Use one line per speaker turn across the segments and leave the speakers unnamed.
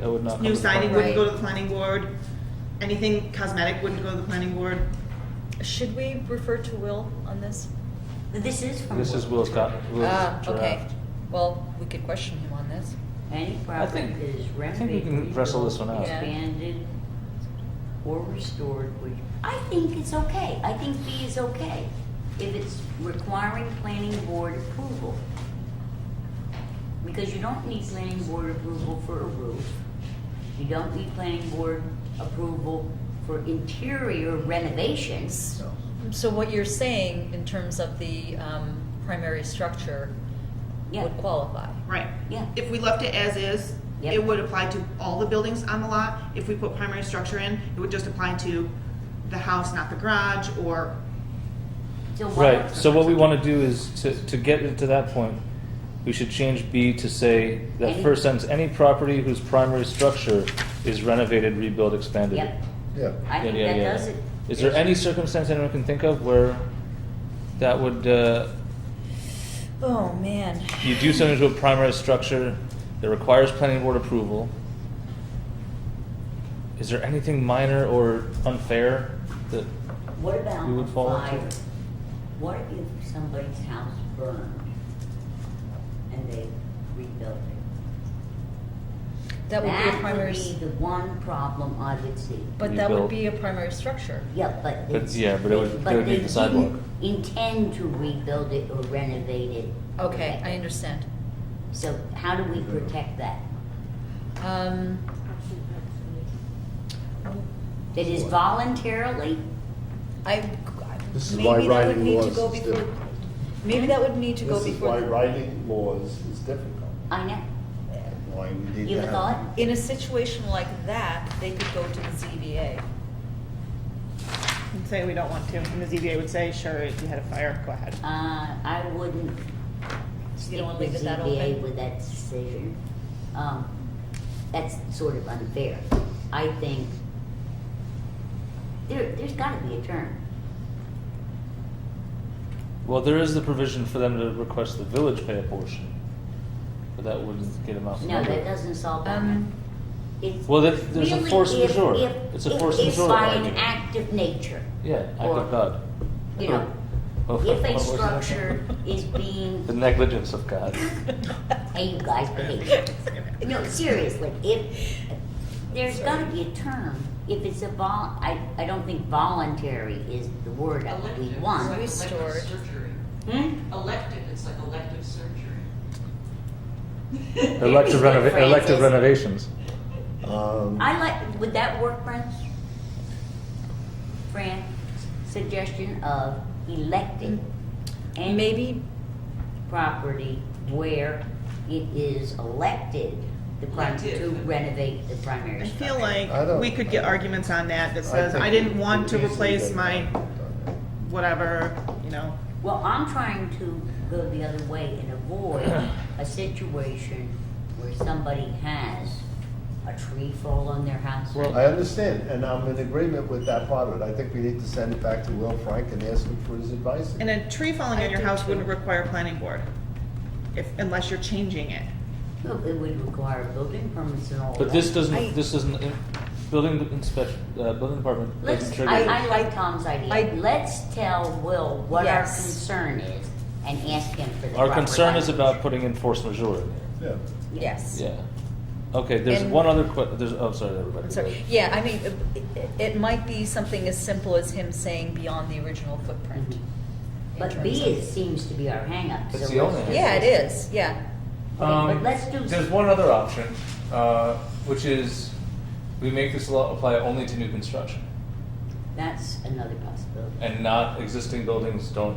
that would not. come
New
to the
siding
board.
wouldn't go to the planning board. Anything cosmetic wouldn't go to the planning board.
Should we refer to Will on this?
This is from.
This is Will's got, Will's
Ah,
draft.
okay. Well, we could question him on this.
Any
I
property
think-
that is
I think
renovated.
we can wrestle this one out.
Yeah.
Expanded or restored, which, I think it's okay, I think B is okay, if it's requiring planning board approval. Because you don't need planning board approval for a roof, you don't need planning board approval for interior renovations.
So what you're saying in terms of the um, primary structure
Yeah,
would qualify?
Right.
yeah,
If we left it as is,
Yep.
it would apply to all the buildings on the lot. If we put primary structure in, it would just apply to the house, not the garage, or
so why?
Right, so what we wanna do is, to, to get it to that point, we should change B to say, that
Any-
first sentence, any property whose primary structure is renovated, rebuilt, expanded.
Yep,
Yeah.
I think
Yeah, yeah,
that
yeah.
does it.
Is there any circumstance anyone can think of where that would, uh,
Oh, man.
you do something to a primary structure that requires planning board approval? Is there anything minor or unfair that,
What about
We would
a
fall into
fire?
it.
What if somebody's house burned and they rebuilt it?
That would be a primary,
That
s-
would be the one problem I would see.
but that would
Rebuilt.
be a primary structure.
Yeah, but
But,
it's.
yeah, but it would-
but
they would need the
didn't
sidewalk.
Intend to rebuild it or renovate it.
Okay, I understand.
So how do we protect that?
Um,
That is voluntarily?
I,
This is why
maybe that would
writing
need to
laws
go
is
before,
difficult.
maybe that would need to go
This is
before.
why
the-
writing laws is difficult.
I know.
Why we need
You
to
have a
have.
thought?
In a situation like that, they could go to the ZBA.
and say we don't want to. And the ZBA would say, sure, if you had a fire, go ahead.
Uh, I wouldn't
You
stick
don't wanna
with
leave it that
ZBA
open?
with that decision. Um, that's sort of unfair. I think there, there's gotta be a term.
well, there is the provision for them to request the village pay a portion, but that wouldn't get them out. from
No,
under
that
it.
doesn't solve that.
Um,
It's
Well, there- there's a
really
force
if-
majeure.
if-
It's a
if-
force majeure
If by an
argument.
act of nature,
Yeah, act
Or,
of God.
you know,
Oh,
if
what
a
was that?
structure is being
The negligence of God.
Hey, you guys, hey. No, seriously, if, there's gotta be a term, if it's a vol, I, I don't think voluntary is the word that we
Elective,
want.
it's like
Restored.
elective surgery.
Hmm?
Elective, it's like elective surgery.
Elective,
Very good,
renova- elective
Francis.
renovations.
Um,
I like, would that work, Fran? Fran, suggestion of electing any
Maybe,
property where it is elected, the prim, to
Elective.
renovate the primary
I
structure.
feel like
I don't-
we could get arguments on that that
I
says,
think
I
we
didn't want to
could easily
replace
get
my
that done.
whatever, you know.
Well, I'm trying to go the other way and avoid a situation where somebody has a tree fall on their house.
Well,
I understand, and I'm in agreement with that part of it. I think we need to send it back to Will Frank and ask him for his advice.
And a tree falling
I
on your
do
house
too.
wouldn't require a planning board, if, unless you're changing it.
It would require building permits and all that.
But this
I-
doesn't, this doesn't, in- building inspection, uh, building department
Let's,
doesn't
I,
trigger.
I like Tom's
I-
idea. Let's tell Will what our
Yes.
concern is and ask him for the
Our
proper
concern is
language.
about putting in force majeure.
Yeah.
yes.
Yeah. Okay, there's
And-
one other que, there's, oh, sorry, everybody.
I'm sorry. Yeah, I mean, it, it might be something as simple as him saying beyond the original footprint.
Mhm.
Mm-hmm.
in
But
terms
B
of-
is, seems to be our hangup.
It's
so
the
let's
only
just-
Yeah, it is, yeah.
Okay,
Um,
but let's do.
There's one other option, uh, which is we make this law apply only to new construction
That's another possibility.
and not existing buildings don't,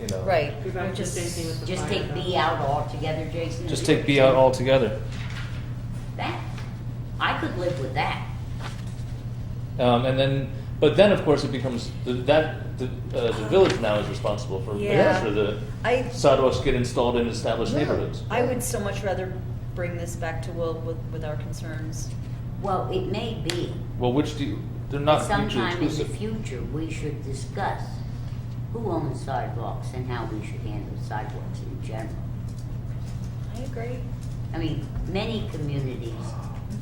you know.
Right.
Go back
We're
to
just-
the same thing with the
Just
fire
take
though.
B out altogether, Jason.
Just
is
take
what
B
you're
out
saying?
altogether.
That, I could live with that.
Um, and then, but then of course it becomes, the- that, the, uh, the village now is responsible for making
Yeah.
sure the
I,
sidewalks get installed in established
Yeah.
neighborhoods.
I would so much rather bring this back to Will with, with our concerns.
Well, it may be
Well, which do you, they're
that
not mutually
sometime in the
exclusive.
future, we should discuss who owns sidewalks and how we should handle sidewalks in general.
I agree.
I mean, many communities